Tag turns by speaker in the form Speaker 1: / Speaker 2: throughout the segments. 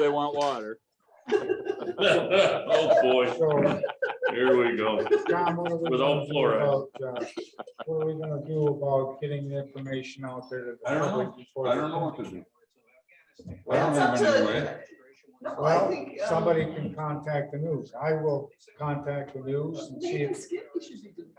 Speaker 1: they want water.
Speaker 2: Oh, boy,
Speaker 3: So,
Speaker 2: here we go.
Speaker 3: John, what are we
Speaker 2: Without
Speaker 3: gonna do
Speaker 2: fluoride.
Speaker 3: about, uh, What are we gonna do about getting the information out there? to the
Speaker 4: I don't know.
Speaker 3: public before
Speaker 4: I
Speaker 3: the-
Speaker 4: don't know what to do. I don't
Speaker 5: That's up
Speaker 4: have any way.
Speaker 5: to. No, I
Speaker 3: Well,
Speaker 5: think, um,
Speaker 3: somebody can contact the news. I will contact the news and see
Speaker 5: Nathan
Speaker 3: if.
Speaker 5: Skibby should be doing.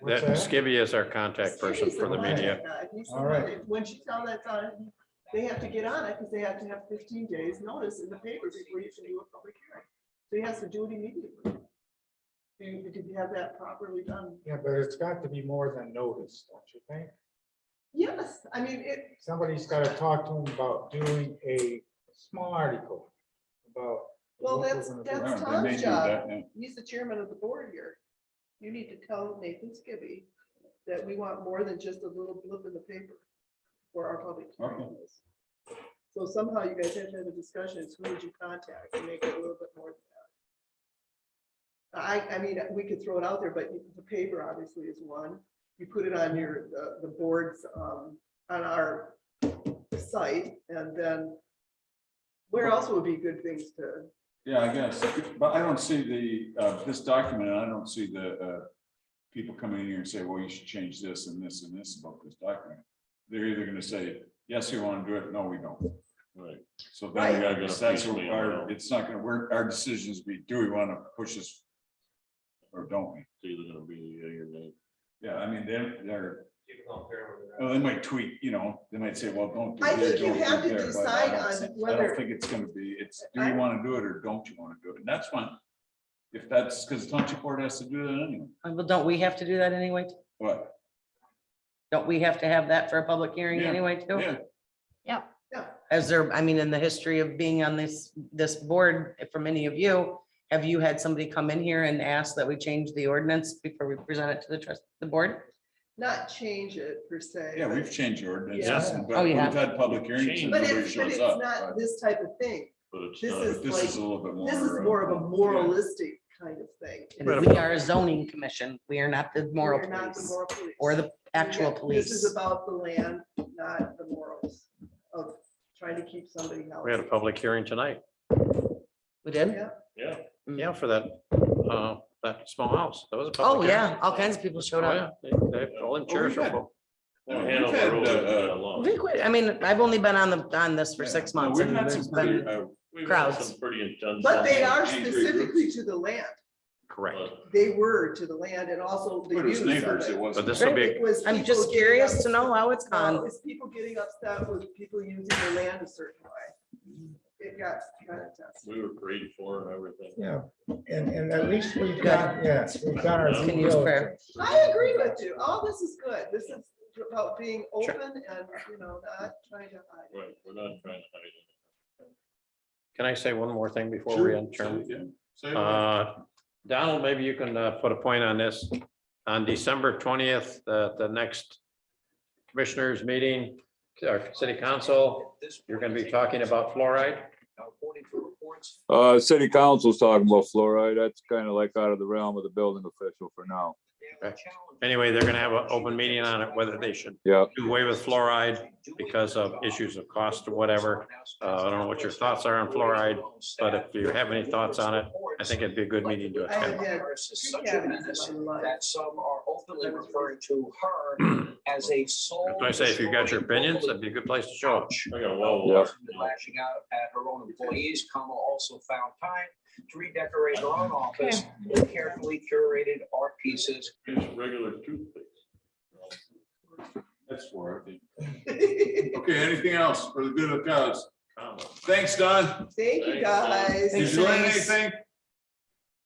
Speaker 3: what's
Speaker 6: That Skibby is our contact person
Speaker 5: Skibby's
Speaker 6: for the
Speaker 5: one
Speaker 6: media.
Speaker 5: that, uh, he's the
Speaker 3: All
Speaker 5: one
Speaker 3: right.
Speaker 5: that- Once you tell that's on, they have to get on it because they have to have fifteen days notice in the paper before you can do a public hearing. So he has to do it immediately. You could have that properly done.
Speaker 3: Yeah, but it's got to be more than notice, don't you think?
Speaker 5: Yes, I mean, it,
Speaker 3: Somebody's gotta talk to them about doing a small article about.
Speaker 5: well,
Speaker 3: what we're
Speaker 5: that's,
Speaker 3: gonna do.
Speaker 4: Yeah,
Speaker 5: that's
Speaker 4: they may
Speaker 5: Tom's
Speaker 4: do
Speaker 5: job.
Speaker 4: that, yeah.
Speaker 5: he's the chairman of the board here. You need to tell Nathan Skibby that we want more than just a little blip in the paper for our public hearing. on this. So somehow you guys have to have a discussion, it's who would you contact to make it a little bit more than that? I, I mean, we could throw it out there, but the paper obviously is one. You put it on your, the, the boards, um, on our site, and then where else would be good things to?
Speaker 4: Yeah, I guess, but I don't see the, uh, this document, and I don't see the, uh, people coming in here and say, well, you should change this and this and this about this document. They're either gonna say, yes, we want to do it, no, we don't.
Speaker 2: Right.
Speaker 4: So
Speaker 5: Right.
Speaker 4: then we gotta, that's what
Speaker 2: Right.
Speaker 4: our, it's not gonna work, our decisions be, do we want to push this? Or don't we?
Speaker 2: It's either gonna be yea or nay.
Speaker 4: Yeah, I mean, they're, they're, well, they might tweak, you know, they might say, well, don't. do
Speaker 5: I think
Speaker 4: this,
Speaker 5: you
Speaker 4: don't do
Speaker 5: have to
Speaker 4: that, but I
Speaker 5: decide
Speaker 4: don't
Speaker 5: on
Speaker 4: see- I
Speaker 5: whether-
Speaker 4: don't think it's gonna be, it's, do
Speaker 5: I-
Speaker 4: you want to do it or don't you want to do it? And that's when, if that's, because township board has to do that anyway.
Speaker 7: Uh, Well, don't we have to do that anyway?
Speaker 4: What?
Speaker 7: Don't we have to have that for a public hearing
Speaker 4: Yeah,
Speaker 7: anyway too?
Speaker 4: Yeah,
Speaker 7: As there, I mean, in the history of being on this, this board, for many of you, have you had somebody come in here and ask that we change the ordinance before we present it to the trust, the board?
Speaker 5: not change it per se.
Speaker 4: yeah,
Speaker 5: but-
Speaker 4: we've changed ordinances,
Speaker 3: Yeah.
Speaker 4: but
Speaker 7: Oh,
Speaker 4: we've
Speaker 7: yeah.
Speaker 4: had public hearings and
Speaker 2: Changed.
Speaker 5: But
Speaker 4: nobody
Speaker 5: it's, but
Speaker 4: shows
Speaker 5: it's
Speaker 4: up.
Speaker 5: not
Speaker 4: but-
Speaker 5: this type of thing.
Speaker 2: But it's uh,
Speaker 5: This
Speaker 2: not,
Speaker 5: is
Speaker 4: But this is a
Speaker 5: like-
Speaker 4: little bit more.
Speaker 5: This is
Speaker 4: uh,
Speaker 5: more of a
Speaker 4: yeah.
Speaker 5: moralistic kind of thing.
Speaker 7: And we are a zoning commission. We are not the moral
Speaker 5: We're not the
Speaker 7: police
Speaker 5: moral police.
Speaker 7: or the actual
Speaker 5: Yeah, This is
Speaker 7: police.
Speaker 5: about the land, not the morals of trying to keep somebody healthy.
Speaker 6: We had a public hearing tonight.
Speaker 7: We did?
Speaker 5: Yeah.
Speaker 2: yeah,
Speaker 6: Yeah, for that, uh, that small house. That was a public.
Speaker 7: Oh,
Speaker 6: hearing.
Speaker 7: yeah. All kinds of people showed
Speaker 6: Oh,
Speaker 7: up.
Speaker 6: yeah. They, they, all them chairs
Speaker 4: we've
Speaker 6: are
Speaker 4: had-
Speaker 6: full.
Speaker 4: Yeah, we've
Speaker 2: Hanover
Speaker 4: had,
Speaker 2: Road
Speaker 4: uh,
Speaker 2: isn't that
Speaker 7: I
Speaker 2: long.
Speaker 7: think we- I mean, I've only been on the, on this for
Speaker 4: yeah.
Speaker 7: six
Speaker 4: No,
Speaker 7: months.
Speaker 4: We've
Speaker 7: and
Speaker 4: had
Speaker 7: it's
Speaker 4: some pretty,
Speaker 7: been-
Speaker 4: uh,
Speaker 2: We've had
Speaker 7: crowds.
Speaker 2: some Pretty intense.
Speaker 5: But they are
Speaker 4: Angry groups.
Speaker 5: specifically to the land.
Speaker 6: Correct.
Speaker 5: They were to the land and also the
Speaker 4: but
Speaker 5: use
Speaker 4: it's
Speaker 5: of
Speaker 4: neighbors,
Speaker 5: it.
Speaker 4: it wasn't.
Speaker 6: But this will be,
Speaker 5: It was
Speaker 7: I'm
Speaker 5: people
Speaker 7: just
Speaker 5: getting
Speaker 7: curious to
Speaker 5: upset.
Speaker 7: know how it's
Speaker 5: No,
Speaker 7: gone.
Speaker 5: it's people getting upset with people using the land a certain way. It got kind of tested.
Speaker 2: We were prayed for and everything.
Speaker 3: Yeah, and, and at least we've got, yes, we've got our.
Speaker 2: Can
Speaker 7: use prayer.
Speaker 5: I agree with you. All this is good. This is about being open and, you know, not trying to hide.
Speaker 2: Right, we're not trying to hide it.
Speaker 6: can I say one more thing before we
Speaker 4: Sure,
Speaker 6: end?
Speaker 4: sure,
Speaker 6: Chairman?
Speaker 4: yeah. So,
Speaker 6: Uh, Donald, maybe you can uh, put a point on this. On December twentieth, the, the next commissioners meeting, our city council, you're gonna be talking about fluoride.
Speaker 1: Uh, city council's talking about fluoride. That's kind of like out of the realm of the building official for now.
Speaker 6: Anyway, they're gonna have an open meeting on it, whether they should
Speaker 1: Yeah,
Speaker 6: do away with fluoride because of issues of cost or whatever. Uh, I don't know what your thoughts are on fluoride, but if you have any thoughts on it, I think it'd be a good meeting to
Speaker 5: I
Speaker 6: attend.
Speaker 5: had three cabinets in my life.
Speaker 8: that some are openly referring to her as a soul.
Speaker 6: That's why I say, if you got your opinions, that'd be a good place to show it.
Speaker 2: I got a wall.
Speaker 1: Yeah.
Speaker 8: Lashing out at her own employees, Kama also found time to redecorate her own office with carefully curated art pieces
Speaker 2: It's regular toothpaste.
Speaker 4: That's for it. Okay, anything else for the good of the cause? Thanks, Don.
Speaker 5: Thank you, guys.
Speaker 4: Did you learn
Speaker 7: Thanks.
Speaker 4: anything?